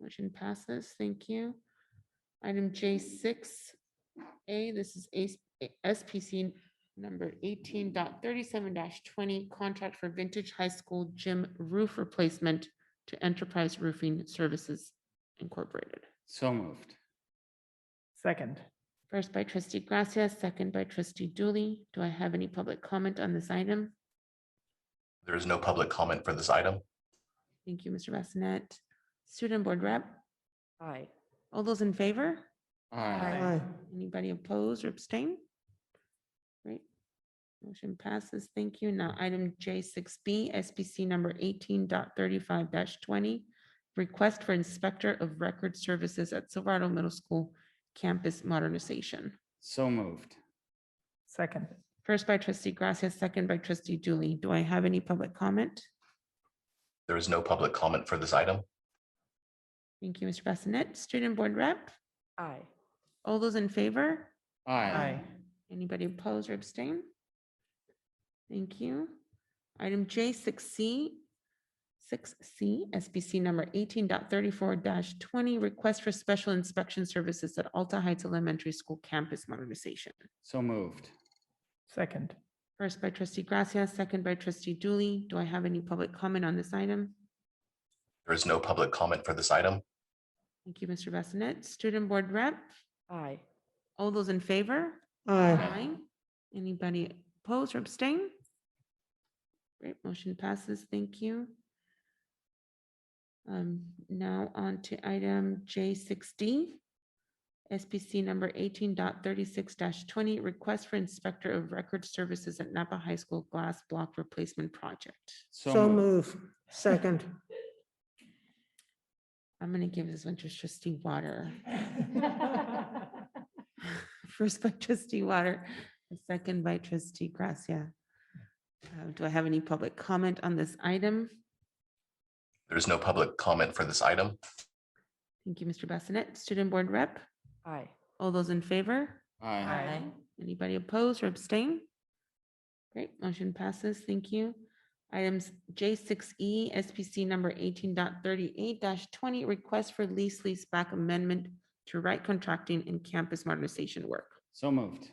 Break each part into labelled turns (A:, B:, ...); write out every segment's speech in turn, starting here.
A: Motion passes. Thank you. Item J six A, this is ACE SPC number eighteen twenty, contract for Vintage High School Gym Roof Replacement to Enterprise Roofing Services Incorporated.
B: So moved.
C: Second.
A: First by trustee Gracia, second by trustee Dooley. Do I have any public comment on this item?
D: There is no public comment for this item.
A: Thank you, Mr. Bassinet. Student Board Rep,
C: Aye.
A: all those in favor?
B: Aye.
A: Anybody oppose or abstain? Great. Motion passes. Thank you. Now, item J six B, SPC number 1835 twenty. Request for Inspector of Record Services at Silverado Middle School Campus Modernization.
B: So moved.
C: Second.
A: First by trustee Gracia, second by trustee Dooley. Do I have any public comment?
D: There is no public comment for this item.
A: Thank you, Mr. Bassinet. Student Board Rep,
C: Aye.
A: all those in favor?
B: Aye.
A: Anybody oppose or abstain? Thank you. Item J six C, six C, SBC number 1834 twenty, request for special inspection services at Alta Heights Elementary School campus modernization.
B: So moved.
C: Second.
A: First by trustee Gracia, second by trustee Dooley. Do I have any public comment on this item?
D: There is no public comment for this item.
A: Thank you, Mr. Bassinet. Student Board Rep,
C: Aye.
A: all those in favor? Aye. Anybody oppose or abstain? Great, motion passes. Thank you. Um, now on to item J six D. SPC number 1836 twenty, request for Inspector of Record Services at Napa High School Glass Block Replacement Project.
E: So move. Second.
A: I'm gonna give this one to trustee Water. First by trustee Water, and second by trustee Gracia. Uh, Do I have any public comment on this item?
D: There is no public comment for this item.
A: Thank you, Mr. Bassinet. Student Board Rep,
C: Aye.
A: all those in favor?
B: Aye.
C: Aye.
A: Anybody oppose or abstain? Great, motion passes. Thank you. Items J six E, SPC number 1838 twenty, request for lease lease back amendment to right contracting and campus modernization work.
B: So moved.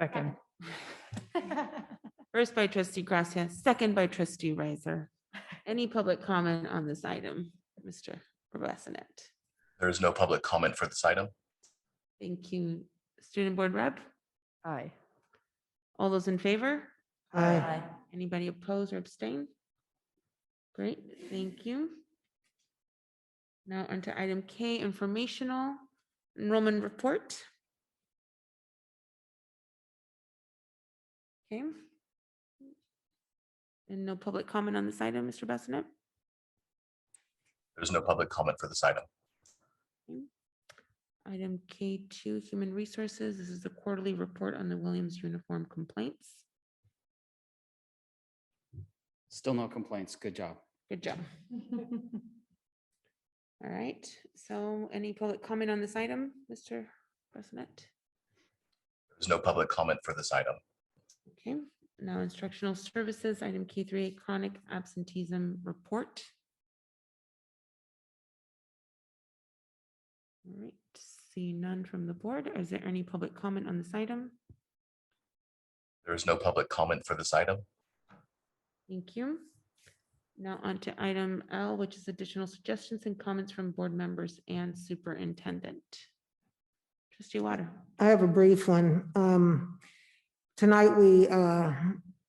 C: Second.
A: First by trustee Gracia, second by trustee Riser. Any public comment on this item, Mr. Bassinet?
D: There is no public comment for this item.
A: Thank you. Student Board Rep,
C: Aye.
A: all those in favor?
E: Aye.
A: Anybody oppose or abstain? Great, thank you. Now onto item K, informational enrollment report. Okay. And no public comment on this item, Mr. Bassinet?
D: There is no public comment for this item.
A: Item K two, human resources. This is the quarterly report on the Williams uniform complaints.
B: Still no complaints. Good job.
A: Good job. All right, so any public comment on this item, Mr. Bassinet?
D: There's no public comment for this item.
A: Okay, now instructional services, item K three, chronic absenteeism report. All right, see none from the board. Is there any public comment on this item?
D: There is no public comment for this item.
A: Thank you. Now on to item L, which is additional suggestions and comments from board members and superintendent. Trustee Water.
E: I have a brief one. Um, Tonight, we uh,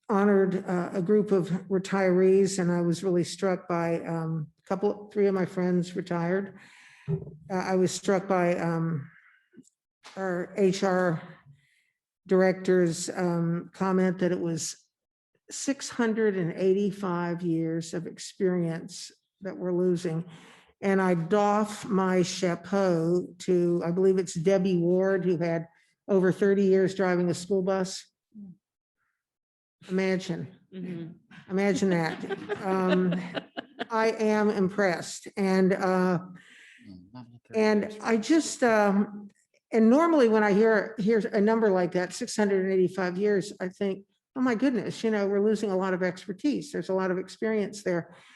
E: honored uh, a group of retirees, and I was really struck by um, a couple, three of my friends retired. Uh, I was struck by um, our HR director's um, comment that it was 685 years of experience that we're losing. And I doff my chapeau to, I believe it's Debbie Ward, who had over 30 years driving a school bus. Imagine, imagine that. Um, I am impressed. And uh,
B: Mm, not at thirty
E: and
B: years.
E: I just, um, and normally when I hear, hear a number like that, six hundred and eighty-five years, I think, oh my goodness, you know, we're losing a lot of expertise. There's a lot of experience there.